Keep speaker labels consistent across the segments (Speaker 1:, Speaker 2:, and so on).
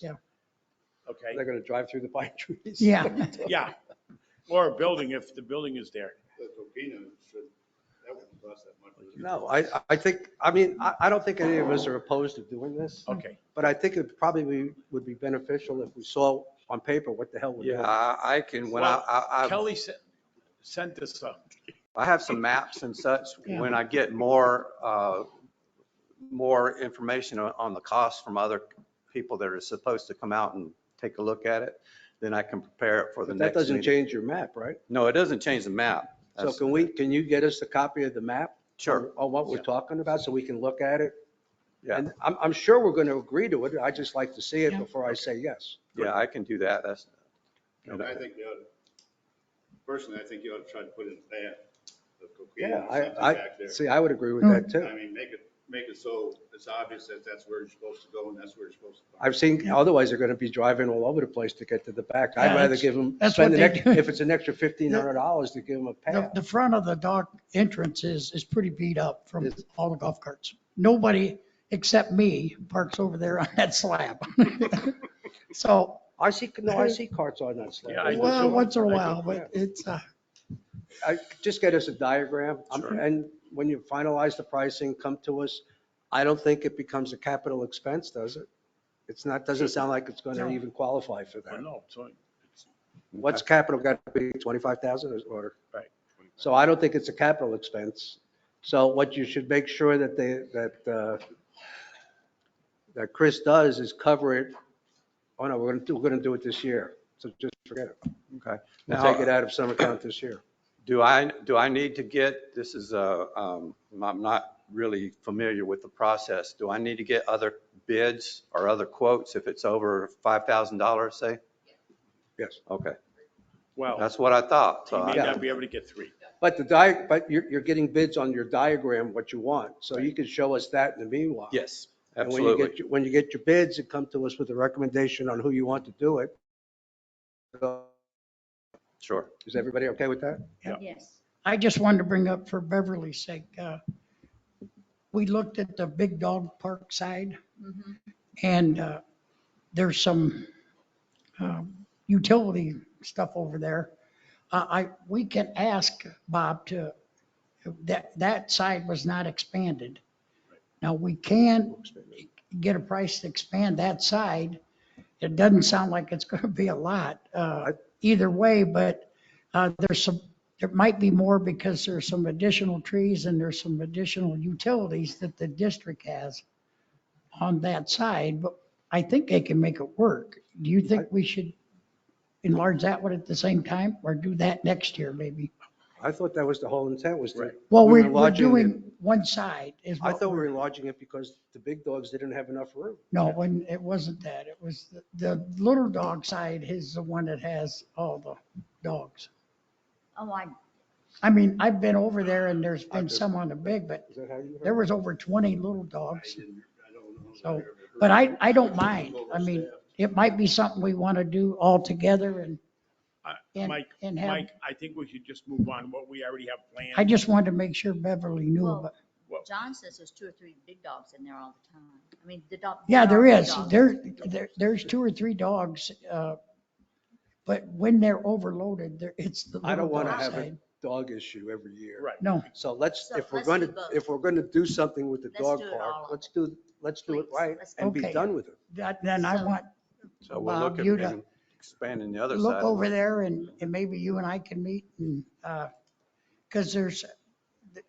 Speaker 1: Yeah.
Speaker 2: okay?
Speaker 3: They're gonna drive through the pine trees.
Speaker 1: Yeah.
Speaker 2: Yeah, or a building if the building is there.
Speaker 4: The Topino should, that wouldn't cost that much.
Speaker 3: No, I, I think, I mean, I, I don't think any of us are opposed to doing this,
Speaker 2: Okay,
Speaker 3: but I think it probably be- would be beneficial if we saw on paper what the hell we're
Speaker 5: Yeah,
Speaker 3: doing.
Speaker 5: I I can, when I,
Speaker 2: Well,
Speaker 5: I, I-
Speaker 2: Kelly sent, sent this up.
Speaker 5: I have some maps and such.
Speaker 1: Yeah.
Speaker 5: When I get more, uh, more information on- on the cost from other people that are supposed to come out and take a look at it, then I can prepare it for the
Speaker 3: But that
Speaker 5: next
Speaker 3: doesn't
Speaker 5: meeting.
Speaker 3: change your map, right?
Speaker 5: No, it doesn't change the map.
Speaker 3: So
Speaker 5: That's-
Speaker 3: can we, can you get us a copy of the map?
Speaker 5: Sure,
Speaker 3: On what we're talking about, so we can look at it?
Speaker 5: yeah,
Speaker 3: And I'm, I'm sure we're gonna agree to it. I just like to see it
Speaker 1: Yeah.
Speaker 3: before I say yes.
Speaker 5: yeah, I can do that. That's,
Speaker 4: And I think you ought, personally, I think you ought to try to put in a path of Topino
Speaker 3: Yeah,
Speaker 4: or something
Speaker 3: I, I,
Speaker 4: back there.
Speaker 3: see, I would agree with
Speaker 1: Mm.
Speaker 3: that too.
Speaker 4: I mean, make it, make it so it's obvious that that's where you're supposed to go and that's where you're supposed to. park.
Speaker 3: I've seen, otherwise they're gonna be driving all over the place to get to the back. I'd
Speaker 1: Yeah,
Speaker 3: rather
Speaker 1: that's-
Speaker 3: give them,
Speaker 1: that's
Speaker 3: spend
Speaker 1: what
Speaker 3: an
Speaker 1: they
Speaker 3: extra,
Speaker 1: do.
Speaker 3: if it's an extra fifteen hundred dollars to give them a
Speaker 1: The,
Speaker 3: pass.
Speaker 1: the front of the dock entrance is, is pretty beat up from
Speaker 3: It's-
Speaker 1: all the golf carts. Nobody except me parks over there on that slab. So,
Speaker 3: I see, no, I see carts on that
Speaker 2: Yeah,
Speaker 3: slab.
Speaker 2: I do
Speaker 1: well,
Speaker 2: too.
Speaker 1: once in a
Speaker 2: I do.
Speaker 1: while, but it's, uh,
Speaker 3: I, just get us a diagram um,
Speaker 5: Sure.
Speaker 3: and when you finalize the pricing, come to us. I don't think it becomes a capital expense, does it? It's not, doesn't sound like it's gonna
Speaker 1: No.
Speaker 3: even qualify for
Speaker 2: Well,
Speaker 3: that.
Speaker 2: oh, no, so
Speaker 3: What's
Speaker 5: Uh,
Speaker 3: capital got to be, 25,000 or?
Speaker 2: Right.
Speaker 3: So I don't think it's a capital expense. So what you should make sure that they, that, uh, that Chris does is cover it. Oh no, we're gonna do, we're gonna do it this year. So just forget it.
Speaker 5: okay.
Speaker 3: We'll
Speaker 5: Now-
Speaker 3: Take it out of some account this year.
Speaker 5: Do I, do I need to get, this is a, um, I'm not really familiar with the process. Do I need to get other bids or other quotes if it's over $5,000, say?
Speaker 3: Yes.
Speaker 5: Okay,
Speaker 2: Well,
Speaker 5: that's what I thought. Uh,
Speaker 2: he
Speaker 5: So
Speaker 2: may
Speaker 5: I-
Speaker 2: not be able to get three.
Speaker 3: But the di, but you're, you're getting bids on your diagram, what you want. So you can show us that in the meanwhile.
Speaker 5: Yes,
Speaker 3: And when you
Speaker 5: absolutely.
Speaker 3: get, your- when you get your bids and come to us with a recommendation on who you want to do it. So
Speaker 5: Sure.
Speaker 3: Is everybody okay with that?
Speaker 6: Yes.
Speaker 1: I just wanted to bring up for Beverly's sake, uh, we looked at the big dog park side and, uh, there's some, um, utility stuff over there. Uh, I, we can ask Bob to, that, that side was not expanded. Now, we can get a price to expand that side. It doesn't sound like it's gonna be a lot, uh, either way, but, uh, there's some, there might be more because there's some additional trees and there's some additional utilities that the district has on that side, but I think they can make it work. Do you think we should enlarge that one at the same time or do that next year maybe?
Speaker 3: I thought that was the whole intent was to.
Speaker 1: Well,
Speaker 3: we
Speaker 1: we're,
Speaker 3: were
Speaker 1: we're
Speaker 3: lodging
Speaker 1: doing
Speaker 3: it-
Speaker 1: one side is
Speaker 3: I
Speaker 1: what,
Speaker 3: thought we were lodging it because the big dogs didn't have enough room.
Speaker 1: no, when, it wasn't that. It was the, the little dog side is the one that has all the dogs.
Speaker 6: Oh, I,
Speaker 1: I mean, I've been over there and there's
Speaker 3: I
Speaker 1: been
Speaker 3: just-
Speaker 1: some on the big, but
Speaker 3: Is that how you
Speaker 1: there
Speaker 3: heard?
Speaker 1: was over 20 little
Speaker 4: I
Speaker 1: dogs.
Speaker 4: didn't- I don't know.
Speaker 1: So, But I, I don't mind. I mean, it might be something we want to do all together and,
Speaker 2: I-
Speaker 1: and,
Speaker 2: Mike,
Speaker 1: and have,
Speaker 2: Mike, I think we should just move on what we already have planned.
Speaker 1: I just wanted to make sure Beverly knew
Speaker 6: Well,
Speaker 1: about,
Speaker 6: John says there's two or three big dogs in there all the time. I mean, the dog.
Speaker 1: yeah, there
Speaker 6: are big
Speaker 1: is.
Speaker 6: dogs.
Speaker 1: There, there, there's two or three dogs. uh, But when they're overloaded, there, it's the
Speaker 3: I don't
Speaker 1: little
Speaker 3: wanna
Speaker 1: dog
Speaker 3: have it.
Speaker 1: side.
Speaker 3: Dog issue every year.
Speaker 2: Right.
Speaker 1: No,
Speaker 3: So let's,
Speaker 6: So
Speaker 3: if we're
Speaker 6: let's
Speaker 3: going to,
Speaker 6: do both.
Speaker 3: if we're going to do something with the
Speaker 6: Let's
Speaker 3: dog
Speaker 6: do it all
Speaker 3: park,
Speaker 6: of
Speaker 3: let's
Speaker 6: it.
Speaker 3: do, let's do it
Speaker 6: Please,
Speaker 3: right
Speaker 6: let's
Speaker 3: and be
Speaker 1: Okay.
Speaker 3: done with it.
Speaker 1: that, then I
Speaker 6: So-
Speaker 1: want,
Speaker 5: So we'll
Speaker 1: Bob,
Speaker 5: look at
Speaker 1: you to-
Speaker 5: maybe expanding the other
Speaker 1: look
Speaker 5: side.
Speaker 1: over there and, and maybe you and I can meet and, uh, cause there's,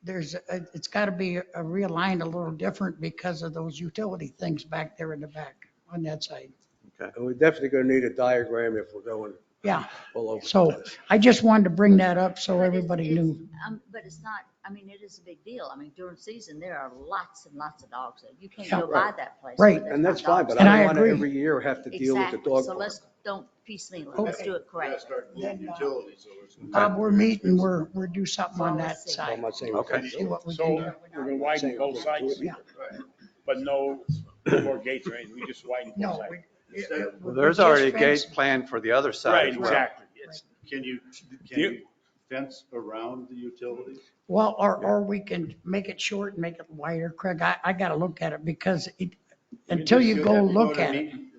Speaker 1: there's, a- it's gotta be a- realigned a little different because of those utility things back there in the back on that side.
Speaker 3: And we're definitely going to need a diagram if we're going
Speaker 1: Yeah,
Speaker 3: all over.
Speaker 1: so I just wanted to bring that up so
Speaker 6: But it's-
Speaker 1: everybody
Speaker 6: it's-
Speaker 1: knew.
Speaker 6: Um, but it's not, I mean, it is a big deal. I mean, during season, there are lots and lots of dogs. there. You can't
Speaker 1: Yeah.
Speaker 6: go by that place.
Speaker 1: Right.
Speaker 6: where there's
Speaker 3: And that's
Speaker 6: not
Speaker 3: fine,
Speaker 6: dogs.
Speaker 3: but
Speaker 1: And
Speaker 3: I
Speaker 1: I
Speaker 3: don't want to
Speaker 1: agree.
Speaker 3: every year have to deal with the
Speaker 6: Exactly.
Speaker 3: dog
Speaker 6: So
Speaker 3: park.
Speaker 6: let's don't piecemeal it. Let's
Speaker 1: Okay.
Speaker 6: do it
Speaker 4: Gotta
Speaker 6: correct.
Speaker 4: start moving
Speaker 1: Then, uh,
Speaker 4: utilities over. it's gonna be
Speaker 1: Bob, we're
Speaker 4: very
Speaker 1: meeting,
Speaker 4: expensive.
Speaker 1: we're, we're do something on
Speaker 6: Well,
Speaker 1: that
Speaker 6: let's see.
Speaker 3: I'm
Speaker 1: side.
Speaker 3: not saying. we
Speaker 5: Okay.
Speaker 3: can't do
Speaker 1: See
Speaker 3: it.
Speaker 1: what we
Speaker 2: So
Speaker 1: can do.
Speaker 2: we're gonna widen both sides,
Speaker 1: Yeah.
Speaker 2: but no no more gates or anything. We just widen both
Speaker 1: No.
Speaker 2: sides.
Speaker 1: we-
Speaker 4: Is
Speaker 1: it-
Speaker 4: that-
Speaker 1: it-
Speaker 5: Well,
Speaker 1: we
Speaker 5: There's
Speaker 1: just
Speaker 5: already a
Speaker 1: fenced-
Speaker 5: gate planned for the other side
Speaker 2: Right,
Speaker 5: as well.
Speaker 2: exactly. It's-
Speaker 4: Can you, can
Speaker 2: You-
Speaker 4: you fence around the utilities?
Speaker 1: Well, or, or we can make it short and make it wider. Craig, I, I gotta look at it because it,
Speaker 4: mean,
Speaker 1: until
Speaker 4: just
Speaker 1: you
Speaker 4: you'd
Speaker 1: go
Speaker 4: have to
Speaker 1: look
Speaker 4: to
Speaker 1: at it.
Speaker 4: meeting- uh,